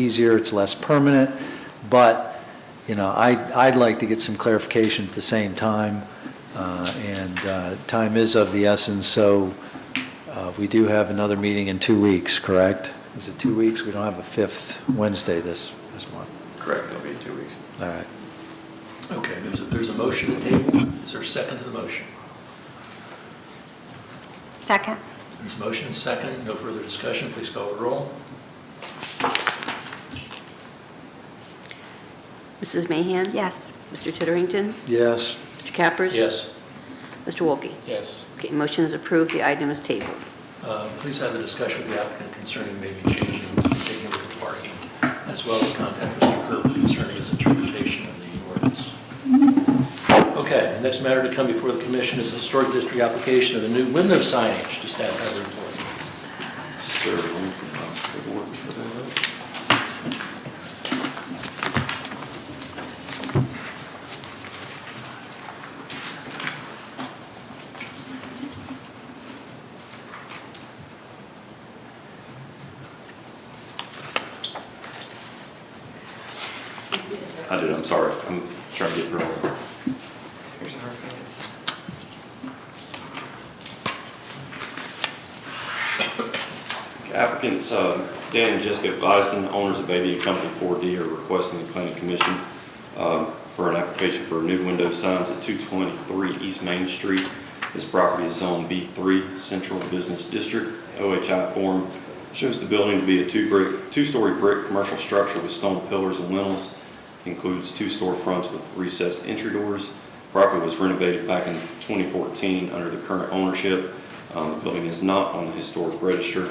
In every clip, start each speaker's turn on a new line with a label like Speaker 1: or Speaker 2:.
Speaker 1: easier, it's less permanent, but, you know, I, I'd like to get some clarification at the same time, uh, and uh, time is of the essence, so uh, we do have another meeting in two weeks, correct? Is it two weeks? We don't have a fifth Wednesday this, this month.
Speaker 2: Correct, it'll be in two weeks.
Speaker 1: All right.
Speaker 3: Okay, there's a, there's a motion to table. Is there a second to the motion?
Speaker 4: Second.
Speaker 3: There's a motion, second, no further discussion, please call the roll.
Speaker 5: Mrs. Mahan?
Speaker 4: Yes.
Speaker 5: Mr. Titterington?
Speaker 1: Yes,
Speaker 5: Mr. Cappers?
Speaker 3: Yes.
Speaker 5: Mr. Wolke?
Speaker 6: Yes.
Speaker 5: Okay, motion is approved, the item is tabled.
Speaker 3: Uh, Please have a discussion with the applicant concerning maybe changing, taking over the parking, as well as contact Mr. Kirby concerning his interpretation of the ordinance. Okay, the next matter to come before the commission is a historic district application of the new window signage to staff have a report.
Speaker 2: Sir, let me put my paperwork for that. I did, I'm sorry. I'm trying to get through. all of it. Here's a hard copy. Applicants, uh, Dan and Jessica Gladstone, owners of AV Company 4D, are requesting the planning commission um, for an application for new window signs at 223 East Main Street. This property is Zone B3, Central Business District. OHI form shows the building to be a two-brick, two-story brick commercial structure with stone pillars and lintels. Includes two storefronts with recessed entry doors. Property was renovated back in 2014 under the current ownership. Um, The building is not on the historic register.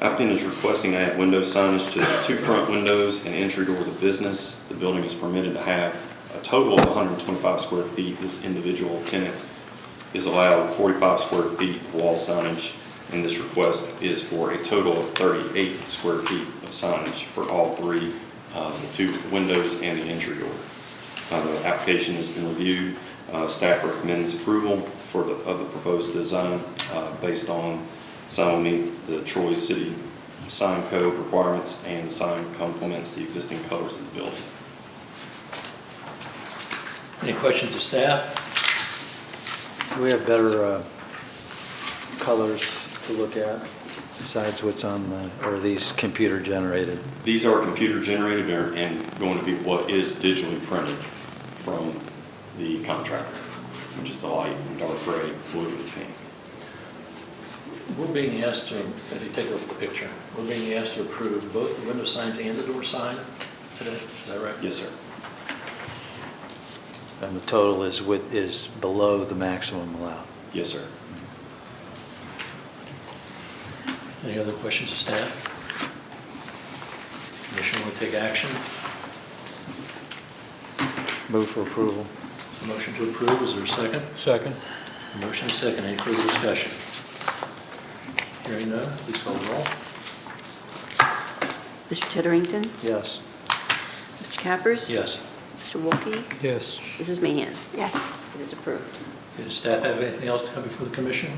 Speaker 2: Applicant is requesting to add window signage to the two front windows and entry door of the business. The building is permitted to have a total of 125 square feet. This individual tenant is allowed 45 square feet of wall signage, and this request is for a total of 38 square feet of signage for all three, uh, the two windows and the entry door. Uh, The application has been reviewed. Uh, Staff recommends approval for the, of the proposed design uh, based on sign will meet the Troy City sign code requirements and the sign complements the existing colors of the building.
Speaker 3: Any questions of staff?
Speaker 1: we have better uh, colors to look at besides what's on the, or these computer generated.
Speaker 2: These are computer generated and- and going to be what is digitally printed from the contractor, which is the light, dark gray, blue, and pink.
Speaker 3: We're being asked to, if you take a look at the picture, we're being asked to approve both the window signs and the door sign today, is that right?
Speaker 2: Yes, sir.
Speaker 1: And the total is with, is below the maximum allowed.
Speaker 2: Yes, sir.
Speaker 3: Any other questions of staff? Commission will take action.
Speaker 1: Move for approval.
Speaker 3: Motion to approve, is there a second?
Speaker 6: Second?
Speaker 3: Motion is second, any further discussion? Hearing none, please call the roll.
Speaker 5: Mr. Titterington?
Speaker 1: Yes.
Speaker 5: Mr. Cappers?
Speaker 3: Yes.
Speaker 5: Mr. Wolke?
Speaker 6: Yes.
Speaker 5: Mrs. Mahan?
Speaker 4: Yes.
Speaker 5: It is approved.
Speaker 3: Does staff have anything else to come before the commission?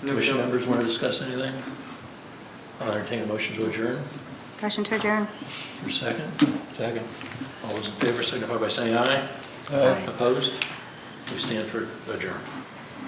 Speaker 3: Commission members want to discuss anything? I'll entertain a motion to adjourn,
Speaker 4: Motion to adjourn.
Speaker 3: your second.
Speaker 6: Second.
Speaker 3: All those in favor signify by saying aye.
Speaker 4: Aye.
Speaker 3: Opposed? We stand for adjourn.